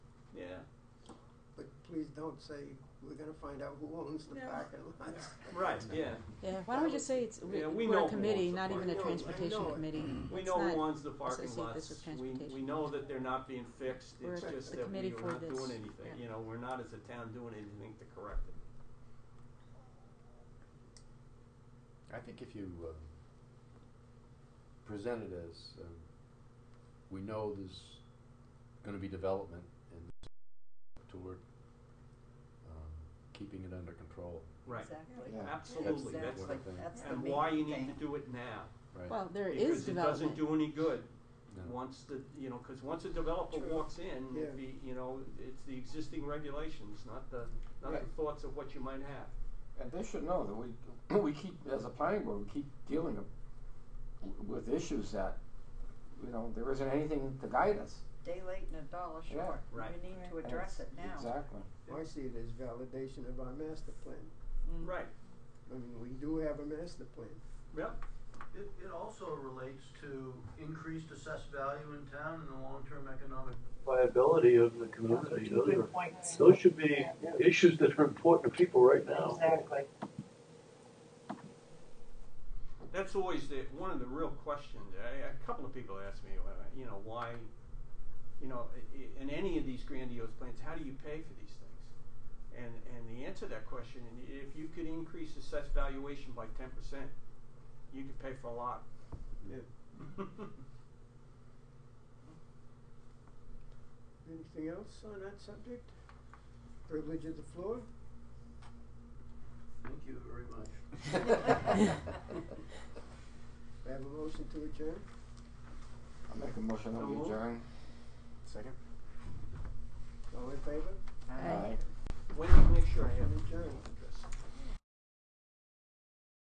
please don't say, we're gonna find out who owns the No. parking lots. Right, yeah. Yeah, why don't we just say it's, we- Yeah, we we're know a who committee, owns the not even a park. transportation I know it. committee. We It's know not- who owns the parking associate this with lots, we, we transportation. know that they're not being fixed, We're it's a- just the that we're committee for not this. doing anything, Yeah. you know, we're not as a town doing anything to correct it. I think if you um, present it as, um, we know there's gonna be development and toward um, keeping it under control, Right, Exactly. Yeah. absolutely, that's Exactly. the, the- That's the and why you main need to thing. do it now. right? Well, there is Because it doesn't development. do any good, No. once the, you know, cause once a developer True. walks in, Yeah. it'd be, you know, it's the existing regulations, not the, not the Right. thoughts of what you might have. And they should know that we, we keep, as a planning board, we keep dealing with issues that, you know, there isn't anything to guide us. Day late and a dollar Yeah. short. Right. We need to And address it it's- now. Exactly. I see it as validation of our master plan. Mm. Right, I mean, we do have a master plan. yep, It, it also relates to increased assessed value in town and the long-term economic viability of the community. Those, are, those should be issues that are important to people right now. Exactly. that's always the, one of the real questions, I, a couple of people ask me, uh, you know, why, you know, i- i- in any of these grandiose plans, how do you pay for these things? And, and the answer to that question, if you could increase assessed valuation by ten percent, you could pay for a lot. Yeah. Anything else on that subject? Privilege of the floor? Thank you very much. I have a motion to adjourn. I make a motion that So we moved. adjourn. Second? All in favor? Aye. When do you make sure I have it? Motion adjourned.